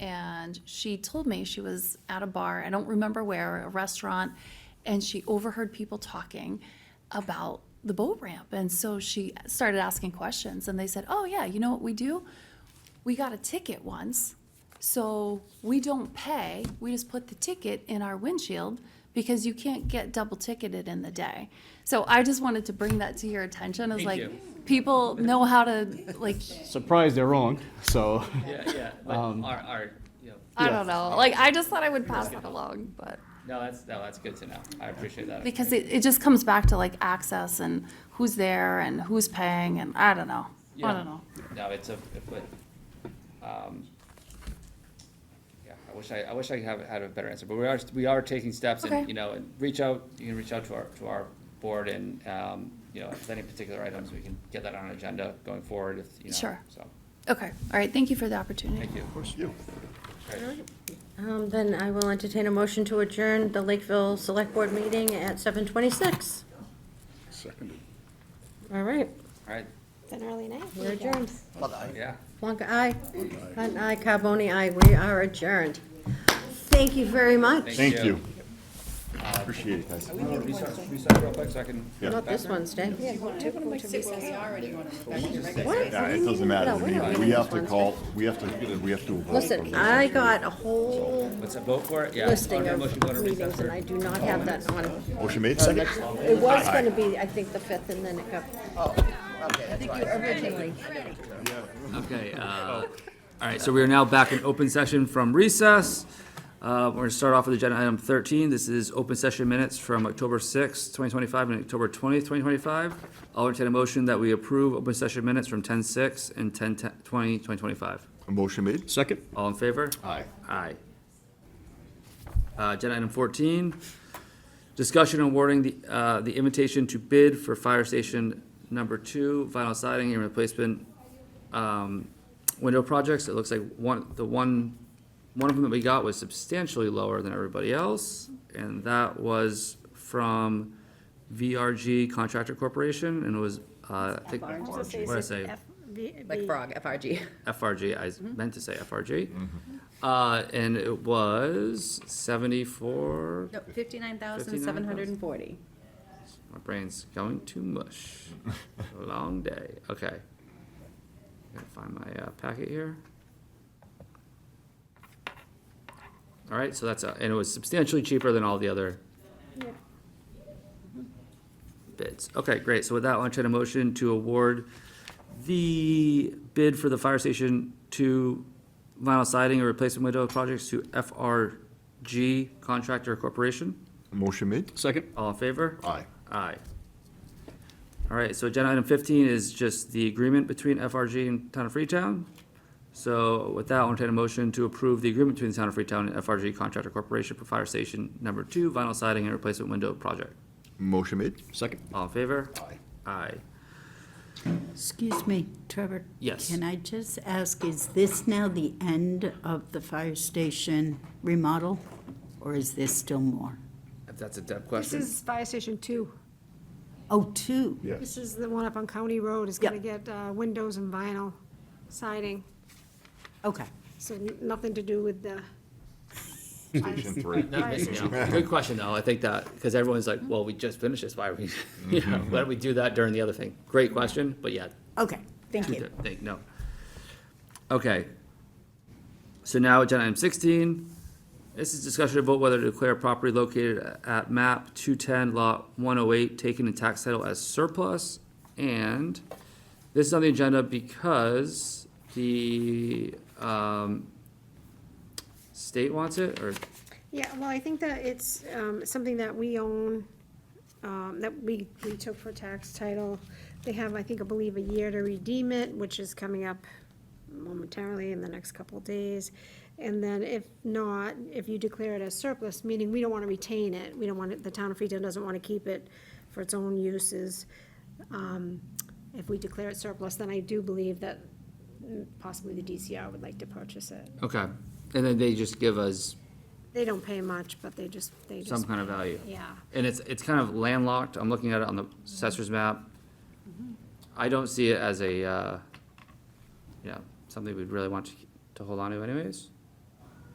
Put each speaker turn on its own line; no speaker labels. and she told me she was at a bar, I don't remember where, a restaurant, and she overheard people talking about the boat ramp. And so she started asking questions, and they said, Oh, yeah, you know what we do? We got a ticket once, so we don't pay. We just put the ticket in our windshield because you can't get double ticketed in the day. So I just wanted to bring that to your attention as
Thank
like,
you.
people know how to, like,
Surprised they're wrong, so.
Yeah, yeah, but our, our, you know,
I
Yeah.
don't know. Like, I just thought I would pass that along, but.
no, that's, no, that's good to know. I appreciate that.
Because it, it just comes back to like access and who's there and who's paying and I don't know. I
Yeah.
don't know.
No, it's a, it would, um, yeah, I wish I, I wish I have had a better answer, but we are, we are taking steps
Okay.
and, you know, and reach out, you can reach out to our, to our board and, um, you know, if any particular items, we can get that on an agenda going forward if, you know.
Sure.
So,
Okay, all right, thank you for the opportunity.
thank you. Of course.
Um, Then I will entertain a motion to adjourn the Lakeville Select Board meeting at 7:26.
Seconded.
All right,
All right,
It's an early night.
we're adjourned.
yeah.
Plonka, aye. Hunt, aye. Carboni, aye. We are adjourned. Thank you very much.
Thank
Thank
you. Uh,
you. Appreciate it, guys.
Reset, reset real quick so I can.
Not this Wednesday. What?
Yeah, it doesn't matter to me. We have to call, we have to, we have to vote.
Listen, I got a whole
What's that vote for? it? Yeah.
listing
Okay,
of
motion, go to recess
meetings, and
for-
I do not have that on.
Motion made, second?
It was going to be, I think, the 5th, and then it got. Oh, okay, that's Originally.
Okay, uh, all right, so we are now back in open session from recess. Uh, We're going to start off with agenda item 13. This is open session minutes from October 6th, 2025, and October 20th, 2025. I'll entertain a motion that we approve open session minutes from 10:06 and 10:20, 2025.
Motion made?
Second?
All in favor?
Aye.
Aye. Uh, agenda item fourteen, discussion awarding the, uh, the invitation to bid for fire station number two, vinyl siding and replacement, um, window projects. It looks like one, the one, one of them that we got was substantially lower than everybody else, and that was from VRG Contractor Corporation, and it was, uh, I think, what did I say?
Like frog, FRG.
FRG, I s- meant to say FRG. Uh, and it was seventy-four,
No, fifty-nine thousand, seven hundred and forty.
my brain's going to mush. Long day, okay. Gotta find my, uh, packet here. All right, so that's, uh, and it was substantially cheaper than all the other bids. Okay, great, so with that, I'll entertain a motion to award the bid for the fire station to vinyl siding and replacement window projects to FRG Contractor Corporation.
Motion made?
Second?
All in favor?
Aye.
Aye. All right, so agenda item fifteen is just the agreement between FRG and Town of Freetown. So with that, I'll entertain a motion to approve the agreement between the Town of Freetown and FRG Contractor Corporation for Fire Station Number Two Vinyl Siding and Replacement Window Project.
Motion made?
Second.
All in favor?
Aye.
Aye.
Excuse me, Trevor.
Yes.
Can I just ask, is this now the end of the fire station remodel, or is there still more?
If that's a Deb
This
question.
is Fire Station Two.
Oh, two.
This is the one up on County Road. It's gonna
Yep.
get uh, windows and vinyl siding,
Okay.
so n- nothing to do with the.
Station three.
Good question, though. I think that, because everyone's like, well, we just finished this, why are we, you know, why don't we do that during the other thing? Great question, but yeah,
Okay, thank
Two
you.
di- thing, no. Okay. So now agenda item sixteen, this is discussion about whether to declare property located at map two-ten lot one-oh-eight taken in tax title as surplus. And this is on the agenda because the, um, state wants it, or,
Yeah, well, I think that it's um, something that we own, um, that we, we took for tax title. They have, I think, I believe, a year to redeem it, which is coming up momentarily in the next couple of days. And then if not, if you declare it as surplus, meaning we don't want to retain it, we don't want it, the town of Freetown doesn't want to keep it for its own uses. um, If we declare it surplus, then I do believe that mm, possibly the DCR would like to purchase it.
okay. And then they just give us
They don't pay much, but they just, they just.
some kind of value.
Yeah.
And it's, it's kind of landlocked, I'm looking at it on the assessor's map. I don't see it as a, uh, you know, something we'd really want to, to hold on to anyways.